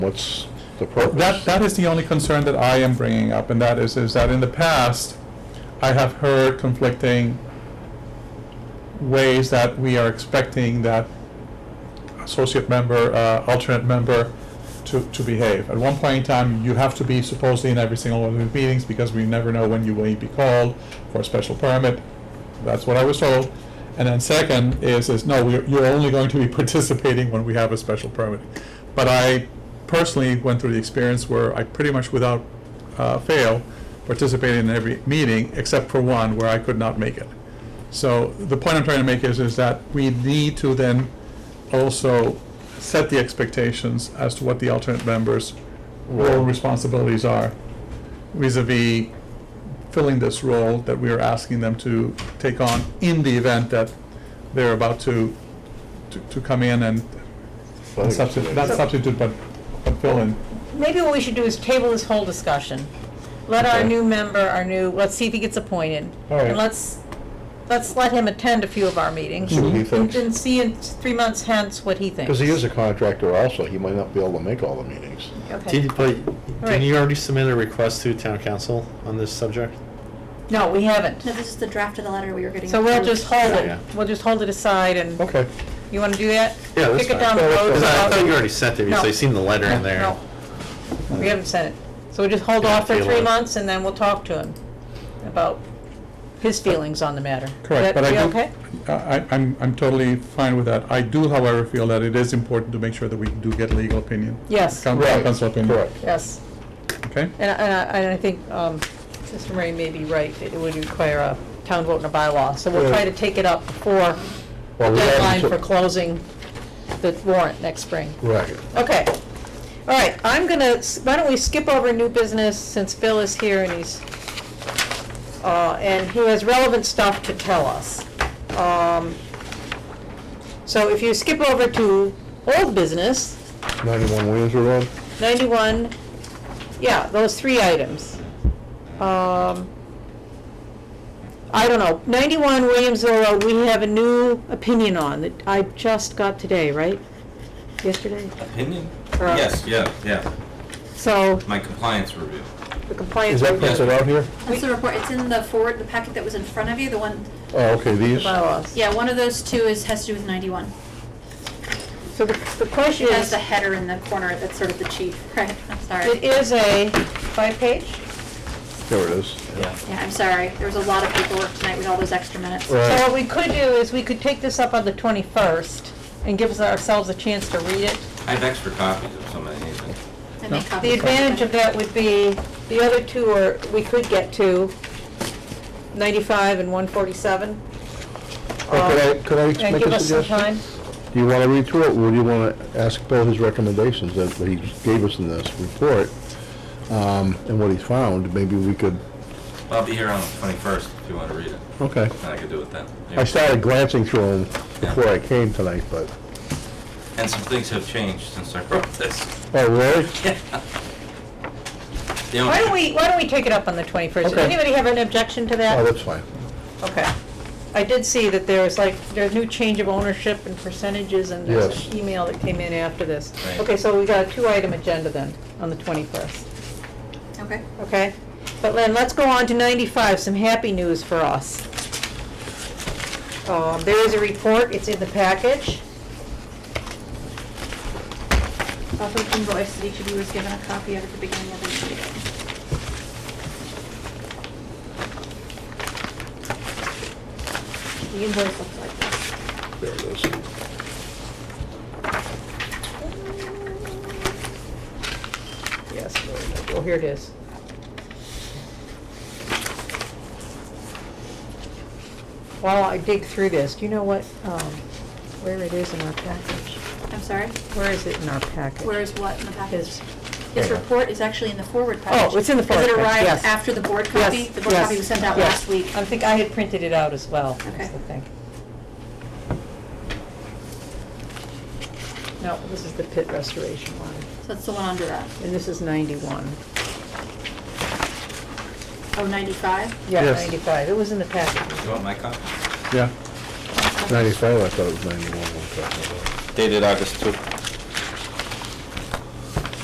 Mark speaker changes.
Speaker 1: What's the purpose?
Speaker 2: That, that is the only concern that I am bringing up, and that is, is that in the past, I have heard conflicting ways that we are expecting that associate member, uh, alternate member to, to behave. At one point in time, you have to be supposedly in every single one of the meetings because we never know when you will be called for a special permit. That's what I was told. And then second is, is no, we're- you're only going to be participating when we have a special permit. But I personally went through the experience where I pretty much without uh, fail participated in every meeting except for one where I could not make it. So the point I'm trying to make is, is that we need to then also set the expectations as to what the alternate members' role and responsibilities are vis-à-vis filling this role that we are asking them to take on in the event that they're about to, to, to come in and and substitute, not
Speaker 1: Thanks.
Speaker 2: substitute, but, but fill in.
Speaker 3: Maybe what we should do is table this whole discussion. Let our
Speaker 1: Okay.
Speaker 3: new member, our new, let's see if he gets appointed.
Speaker 1: All right.
Speaker 3: And let's, let's let him attend a few of our meetings.
Speaker 1: See what he
Speaker 3: and-
Speaker 1: thinks.
Speaker 3: And see in three months hence what he thinks.
Speaker 1: Because he is a contractor also, he might not be able to make all the meetings.
Speaker 3: Okay.
Speaker 4: Did, but,
Speaker 3: Right.
Speaker 4: didn't you already submit a request to town council on this subject?
Speaker 3: No, we haven't.
Speaker 5: No, this is the draft of the letter we were getting.
Speaker 3: So we'll
Speaker 5: approved.
Speaker 3: just hold
Speaker 4: Yeah.
Speaker 3: it, we'll just hold it aside and,
Speaker 1: Okay.
Speaker 3: you wanna do that?
Speaker 4: Yeah, that's
Speaker 3: Kick it
Speaker 4: fine.
Speaker 3: down the
Speaker 1: Yeah, that's
Speaker 3: road.
Speaker 1: fine.
Speaker 4: Because I
Speaker 3: without-
Speaker 4: thought you already sent it, because
Speaker 3: No.
Speaker 4: I seen the letter in there.
Speaker 3: No, we haven't sent it. So we just hold
Speaker 4: Yeah,
Speaker 3: off for
Speaker 4: table
Speaker 3: three
Speaker 4: it.
Speaker 3: months and then we'll talk to him about his feelings on the matter. Would
Speaker 2: Correct,
Speaker 3: that
Speaker 2: but I
Speaker 3: be
Speaker 2: do.
Speaker 3: okay?
Speaker 2: I, I- I'm, I'm totally fine with that. I do, however, feel that it is important to make sure that we do get legal opinion.
Speaker 3: Yes.
Speaker 2: Coun-
Speaker 1: Right,
Speaker 2: Council opinion.
Speaker 1: correct.
Speaker 3: Yes,
Speaker 2: Okay?
Speaker 3: and, I- and I, and I think, um, Mr. Murray may be right, it would require a town vote and a bylaw, so we'll try to take it up before the
Speaker 1: Well, we haven't
Speaker 3: deadline
Speaker 1: took-
Speaker 3: for closing the warrant next spring.
Speaker 1: Right.
Speaker 3: Okay, all right, I'm gonna, s- why don't we skip over new business since Bill is here and he's, uh, and he has relevant stuff to tell us. Um, So if you skip over to old business,
Speaker 1: Ninety-one Williamsville Road?
Speaker 3: 91, yeah, those three items. Um, I don't know, 91 Williamsville Road, we have a new opinion on that I just got today, right? Yesterday?
Speaker 6: Opinion?
Speaker 3: Or-
Speaker 6: Yes, yeah, yeah.
Speaker 3: So
Speaker 6: My compliance review.
Speaker 3: the compliance.
Speaker 1: Is that printed out here?
Speaker 5: That's the report, it's in the forward, the packet that was in front of you, the one,
Speaker 1: Oh, okay, these?
Speaker 3: bylaws.
Speaker 5: yeah, one of those two is, has to do with ninety-one.
Speaker 3: So the the question
Speaker 5: It has
Speaker 3: is,
Speaker 5: the header in the corner that's sort of the chief, right, I'm
Speaker 3: it
Speaker 5: sorry.
Speaker 3: is a five-page?
Speaker 1: There it is.
Speaker 5: Yeah, I'm sorry, there was a lot of paperwork tonight with all those extra minutes.
Speaker 1: Right.
Speaker 3: So what we could do is we could take this up on the 21st and give us- ourselves a chance to read it.
Speaker 6: I have extra copies if somebody needs them.
Speaker 5: I made copies.
Speaker 3: The advantage of that would be, the other two are, we could get to 95 and 147.
Speaker 1: Oh, Could I, could I
Speaker 3: And
Speaker 1: make
Speaker 3: give
Speaker 1: a
Speaker 3: us some time.
Speaker 1: suggestion? Do you want to read through it, or do you want to ask Bill his recommendations that that he gave us in this report? um, And what he found, maybe we could,
Speaker 6: I'll be here on the 21st if you want to read it.
Speaker 1: okay.
Speaker 6: And I can do it then.
Speaker 1: I started glancing through them before I came tonight, but,
Speaker 6: And some things have changed since I wrote this.
Speaker 1: oh, really?
Speaker 6: You know,
Speaker 3: Why don't we, why don't we take it up on the 21st? Does
Speaker 1: Okay.
Speaker 3: anybody have an objection to
Speaker 1: Oh,
Speaker 3: that?
Speaker 1: that's fine.
Speaker 3: Okay. I did see that there was like, there's new change of ownership and percentages and there's
Speaker 1: Yes.
Speaker 3: an email that came in after this.
Speaker 6: Right.
Speaker 3: Okay, so we got a two-item agenda then, on the 21st.
Speaker 5: Okay,
Speaker 3: Okay, but then let's go on to 95, some happy news for us. Um, There is a report, it's in the package.
Speaker 5: also invoice that each of you was given a copy of at the beginning of the meeting. The invoice looks like this.
Speaker 1: There it is.
Speaker 3: Yes, oh, here it is. While I dig through this, do you know what, um, where it is in our package?
Speaker 5: I'm sorry,
Speaker 3: Where is it in our package?
Speaker 5: where is what in the package?
Speaker 3: His- Oh,
Speaker 5: His
Speaker 1: Yeah.
Speaker 5: report is actually in the forward package.
Speaker 3: it's in the forward
Speaker 5: Because it
Speaker 3: package, yes.
Speaker 5: arrived after the board copy. The board
Speaker 3: yes,
Speaker 5: copy was sent out
Speaker 3: yes.
Speaker 5: last week.
Speaker 3: I think I had printed it out as well,
Speaker 5: Okay.
Speaker 3: is the thing. No, this is the pit restoration one,
Speaker 5: So that's the one under that.
Speaker 3: and this is ninety-one.
Speaker 5: Oh, 95?
Speaker 3: Yeah,
Speaker 2: Yes.
Speaker 3: ninety-five, it was in the packet.
Speaker 6: You want my copy?
Speaker 2: Yeah.
Speaker 1: Ninety-five, I thought it was ninety-one.
Speaker 6: Dated August 2.